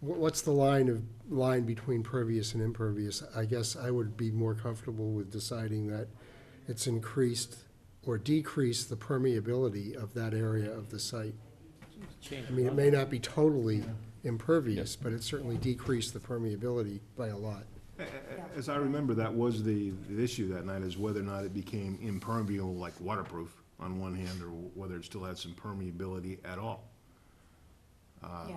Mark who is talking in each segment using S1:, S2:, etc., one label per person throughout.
S1: wh- what's the line of, line between pervious and impervious? I guess I would be more comfortable with deciding that it's increased or decreased the permeability of that area of the site. I mean, it may not be totally impervious, but it certainly decreased the permeability by a lot.
S2: As I remember, that was the, the issue that night, is whether or not it became impermeable, like waterproof, on one hand, or whether it still had some permeability at all. Um,
S3: Yeah.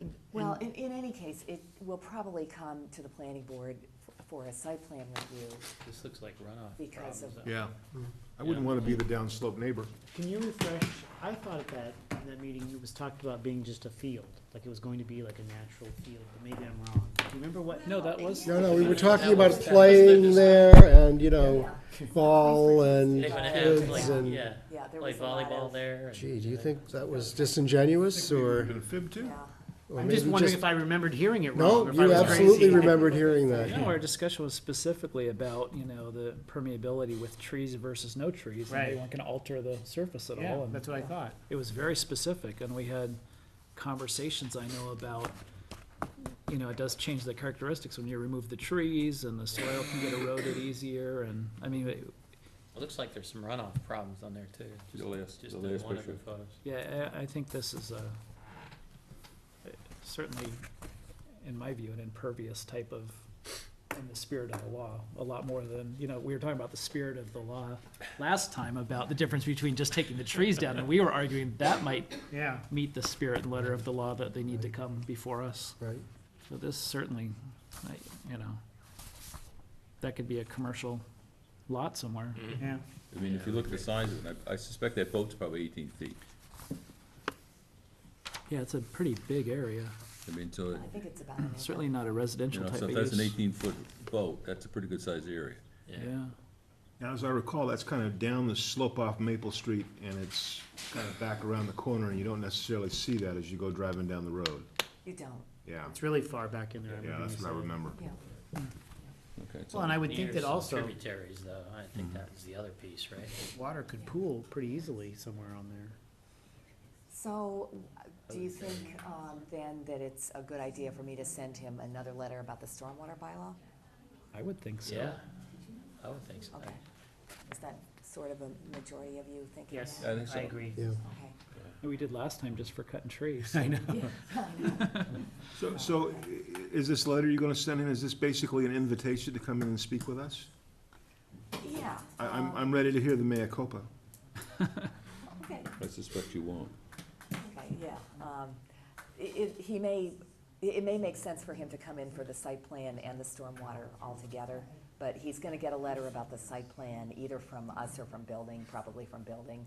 S4: And-
S3: Well, in, in any case, it will probably come to the planning board f- for a site plan review.
S5: This looks like runoff.
S3: Because of-
S5: problems.
S2: Yeah. I wouldn't wanna be the downslope neighbor.
S4: Can you refresh, I thought at that, that meeting, it was talked about being just a field, like it was going to be like a natural field, but maybe I'm wrong. Do you remember what?
S5: No, that was.
S1: No, no, we were talking
S5: That
S1: about
S5: was- that was the
S1: playing
S5: design.
S1: there and, you know, ball and
S5: They're gonna have
S1: kids
S5: like,
S1: and,
S5: yeah,
S3: Yeah, there
S5: play
S3: was a lot
S5: volleyball
S3: of-
S5: there. and-
S1: gee, do you think that was disingenuous or?
S2: Been fib too?
S3: Yeah.
S1: or
S4: I'm just
S1: maybe
S4: wondering if I remembered hearing it wrong.
S1: No,
S4: or if I
S1: you
S4: was
S1: absolutely
S4: crazy.
S1: remembered hearing that.
S6: No, our discussion was specifically about, you know, the permeability with trees versus no trees. And
S4: Right.
S6: they weren't gonna alter the surface at
S4: Yeah,
S6: all. And
S4: that's what I thought.
S6: it was very specific and we had conversations I know about, you know, it does change the characteristics when you remove the trees and the soil can get eroded easier and, I mean, it-
S5: It looks like there's some runoff problems on there too. just-
S7: The last-
S5: Just
S7: the
S5: in
S7: last
S5: one of the
S7: picture.
S5: photos.
S6: yeah, I, I think this is a, certainly, in my view, an impervious type of, in the spirit of the law, a lot more than, you know, we were talking about the spirit of the law last time about the difference between just taking the trees down, and we were arguing that might
S4: Yeah.
S6: meet the spirit and letter of the law that they need to come before us.
S1: Right.
S6: So this certainly, I, you know, that could be a commercial lot somewhere.
S4: Yeah.
S7: I mean, if you look at the size of it, I I suspect that boat's probably eighteen feet.
S6: Yeah, it's a pretty big area,
S7: I mean, so, it-
S3: I think it's about. an acre.
S6: certainly not a
S7: you
S6: residential
S7: know,
S6: type
S7: so
S6: of
S7: if that's an
S6: use.
S7: eighteen-foot boat, that's a pretty good-sized area.
S5: Yeah.
S6: Yeah.
S2: Now, as I recall, that's kind of down the slope off Maple Street, and it's kind of back around the corner, and you don't necessarily see that as you go driving down the road.
S3: You don't,
S2: Yeah,
S4: It's really far back in there. I
S2: yeah,
S4: remember
S2: that's
S4: you
S2: what I
S4: said.
S2: remember.
S3: yeah.
S7: Okay, it's
S4: Well, and I would think
S5: Near
S4: that
S5: some
S4: also,
S5: Tributaries though, I think that was the other piece, right?
S4: water could pool pretty easily somewhere on there.
S3: So, do you think, um, then that it's a good idea for me to send him another letter about the stormwater bylaw?
S6: I would think so.
S5: Yeah, I would think so.
S3: Okay. Is that sort of a majority of you thinking that?
S7: I think so.
S4: agree.
S1: Yeah.
S3: Okay.
S6: And We did last time just for cutting trees.
S4: I know.
S2: So, so i- i- is this letter you're gonna send him, is this basically an invitation to come in and speak with us?
S3: Yeah.
S2: I, I'm,
S3: um,
S2: I'm ready to hear the mea culpa.
S3: Okay,
S7: I suspect you won't.
S3: okay, yeah. Um, i- It, he may, i- it may make sense for him to come in for the site plan and the stormwater altogether, but he's gonna get a letter about the site plan, either from us or from building, probably from building.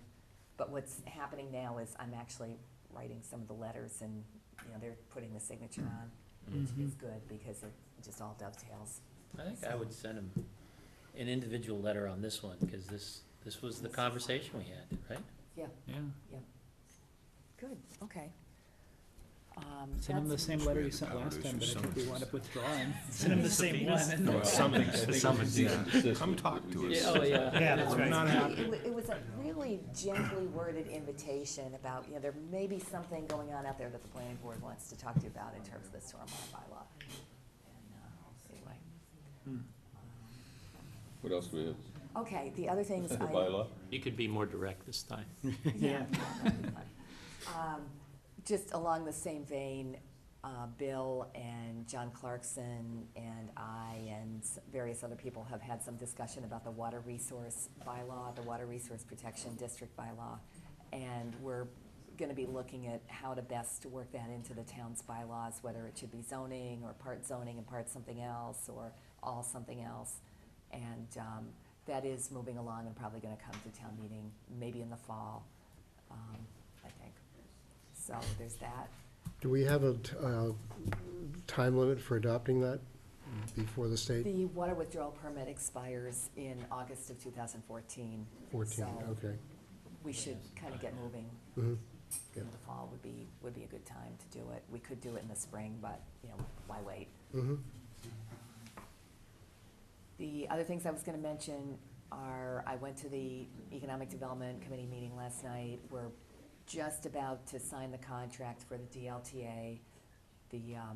S3: But what's happening now is I'm actually writing some of the letters and, you know, they're putting the signature on, which
S6: Mm-hmm.
S3: is good because it just all dovetails.
S5: I think I would send him an individual letter on this one, cause this, this was the conversation we had, right?
S6: Yeah.
S3: Good, okay. Um,
S6: Send them the
S3: that's-
S6: same letter you sent last time, but I think we wound up withdrawing. Send them the same one.
S2: Something,
S7: Come
S2: talk to
S5: Yeah, oh, yeah.
S4: Yeah, that's right.
S3: It- It wa- it was a really gently worded invitation about, you know, there may be something going on out there that the planning board wants to talk to you about in terms of the stormwater bylaw. And, uh, anyway.
S7: What else do we have?
S3: Um, Okay, the other things
S7: The
S3: I.
S7: bylaw?
S5: You could be more direct this time.
S3: Yeah. Um, Just along the same vein, uh, Bill and John Clarkson and I and s- various other people have had some discussion about the water resource bylaw, the Water Resource Protection District bylaw. And we're gonna be looking at how to best to work that into the town's bylaws, whether it should be zoning or part zoning and part something else or all something else. And um, that is moving along and probably gonna come to town meeting, maybe in the fall, um, I think. So there's that.
S1: Do we have a t- uh, time limit for adopting that before the state?
S3: The water withdrawal permit expires in August of 2014.
S1: 14,
S3: so-
S1: okay.
S3: We should kind of get moving.
S1: Mhm.
S3: In
S1: Yeah.
S3: the fall would be, would be a good time to do it. We could do it in the spring, but, you know, why wait?
S1: Mhm.
S3: The other things I was gonna mention are, I went to the Economic Development Committee meeting last night. We're just about to sign the contract for the DLTA. The, um,